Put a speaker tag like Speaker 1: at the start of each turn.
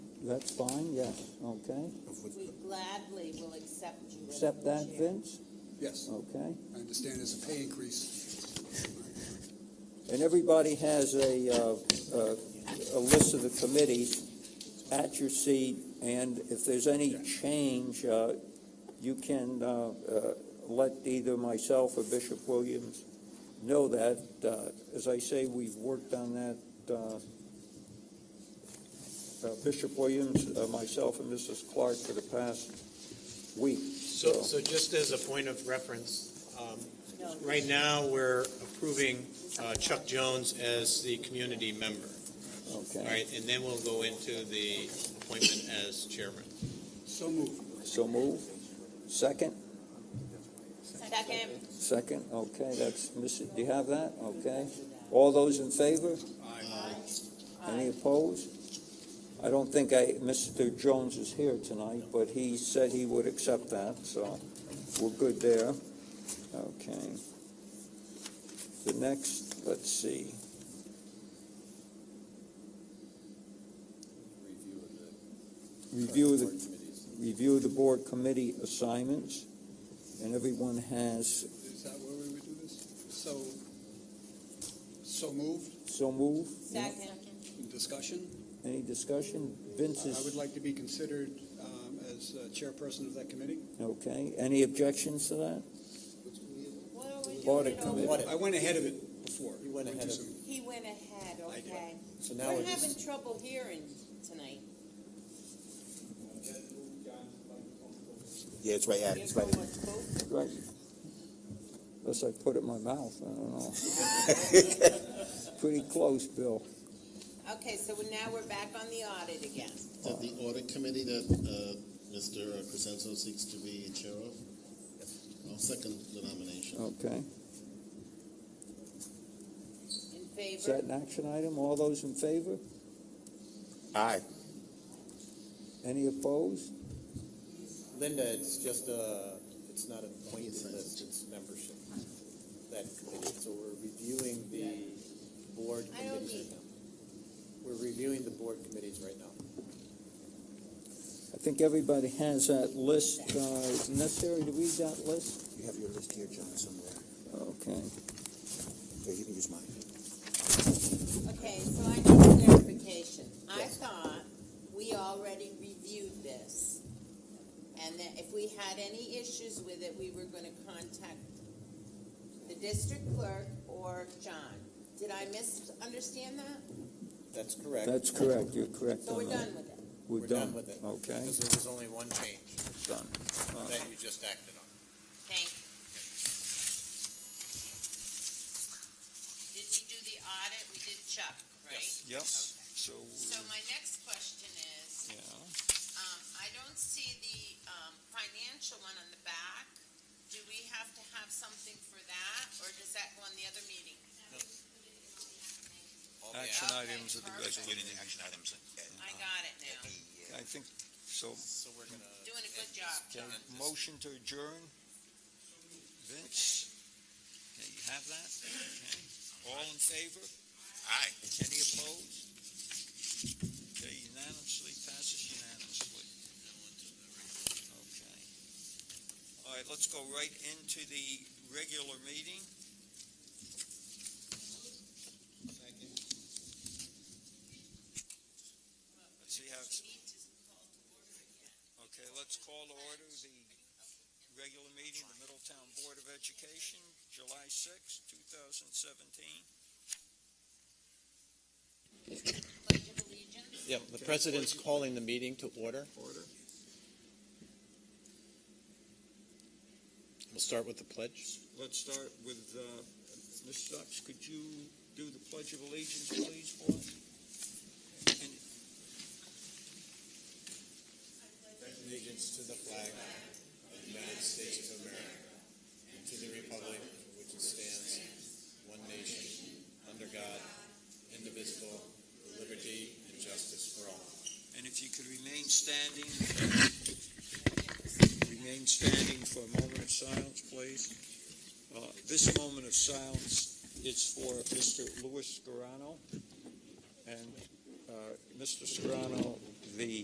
Speaker 1: That's fine, yes, okay.
Speaker 2: We gladly will accept you. as
Speaker 1: Accept that,
Speaker 2: chair.
Speaker 1: Vince?
Speaker 3: Yes,
Speaker 1: Okay.
Speaker 3: I understand there's a pay increase.
Speaker 1: And everybody has a, uh, uh, a list of the committees at your seat, and if there's any change, uh, you can uh, uh, let either myself or Bishop Williams know that. Uh, As I say, we've worked on that, uh, uh, Bishop Williams, uh, myself, and Mrs. Clark for the past week.
Speaker 4: So, so just as a point of reference, um,
Speaker 2: No.
Speaker 4: right now, we're approving uh, Chuck Jones as the community member, all
Speaker 1: Okay,
Speaker 4: right? And then we'll go into the appointment as chairman.
Speaker 3: So moved.
Speaker 1: so move. Second?
Speaker 2: Second.
Speaker 1: Second, okay, that's, Mrs. do you have that? Okay. All those in favor? Any opposed? I don't think I, Mr. Jones is here tonight, but he said he would accept that, so we're good there. Okay. The next, let's see, review of the review of the board committee assignments, and everyone has
Speaker 3: Is that where we would do this? So, so moved,
Speaker 1: so moved.
Speaker 2: Second.
Speaker 3: discussion?
Speaker 1: Any discussion? Vince
Speaker 3: I would
Speaker 1: is,
Speaker 3: like to be considered um, as uh, chairperson of that committee.
Speaker 1: okay, any objections to that?
Speaker 2: What are we
Speaker 1: Audit
Speaker 2: doing over-
Speaker 5: committee.
Speaker 3: I went ahead of it before.
Speaker 5: You went ahead of it.
Speaker 2: He went ahead,
Speaker 3: I did.
Speaker 2: okay.
Speaker 5: So now
Speaker 2: We're
Speaker 5: we're
Speaker 2: having
Speaker 5: just,
Speaker 2: trouble hearing tonight.
Speaker 6: Yeah, it's right at it. It's right at it.
Speaker 1: Right. Unless I put it in my mouth, I don't know. Pretty close, Bill.
Speaker 2: Okay, so we're- now we're back on the audit again.
Speaker 7: That the audit committee that uh, Mr. Crescenzo seeks to be chair of? I'll second the nomination.
Speaker 1: Okay.
Speaker 2: In
Speaker 1: Is that
Speaker 2: favor?
Speaker 1: an action item? All those in favor?
Speaker 6: Aye.
Speaker 1: Any opposed?
Speaker 5: Linda, it's just a, it's not an appointment list, it's membership. That committee, so we're reviewing the board
Speaker 2: I don't
Speaker 5: committees
Speaker 2: need-
Speaker 5: right now. We're reviewing the board committees right now.
Speaker 1: I think everybody has that list. Uh, is it necessary to read that list?
Speaker 6: You have your list here, John, somewhere.
Speaker 1: Okay.
Speaker 6: Here, you can use mine.
Speaker 2: Okay, so I need clarification. I thought we already reviewed this. And that if we had any issues with it, we were gonna contact the district clerk or John. Did I misunderstand that?
Speaker 5: That's correct.
Speaker 1: That's correct. You're correct
Speaker 2: So we're
Speaker 1: on that.
Speaker 2: done with it.
Speaker 5: We're done with it.
Speaker 1: Okay,
Speaker 5: Because there was only one change
Speaker 1: done.
Speaker 5: that you just acted on.
Speaker 2: Thank you. Did we do the audit? We did Chuck, right?
Speaker 1: Yep, so,
Speaker 2: So my next question is,
Speaker 1: yeah.
Speaker 2: um, I don't see the, um, financial one on the back. Do we have to have something for that, or does that go on the other meeting?
Speaker 8: Action
Speaker 2: Okay,
Speaker 8: items of the
Speaker 2: perfect.
Speaker 8: budget.
Speaker 2: I got it now.
Speaker 8: I think, so,
Speaker 2: Doing a good job,
Speaker 8: uh,
Speaker 2: John.
Speaker 8: motion to adjourn. Vince? Okay, you have that? Okay. All in favor? Aye. Any opposed? Okay, unanimously, passes unanimously. Okay. All right, let's go right into the regular meeting. Let's see how, it's- Okay, let's call to order the regular meeting, of the Middletown Board of Education, July sixth, two 2017.
Speaker 2: Pledge of allegiance.
Speaker 5: Yeah, the president's calling the meeting to order.
Speaker 8: Order.
Speaker 5: We'll start with the pledge.
Speaker 8: Let's start with, uh, Ms. Stocks, could you do the Pledge of Allegiance, please, for us? And
Speaker 7: Allegiance to the flag of the United States of America and to the republic for which it stands, one nation, under God, indivisible, with liberty and justice for all.
Speaker 8: And if you could remain standing, remain standing for a moment of silence, please. Uh, This moment of silence is for Mr. Louis Scarano. And uh, Mr. Scarano, the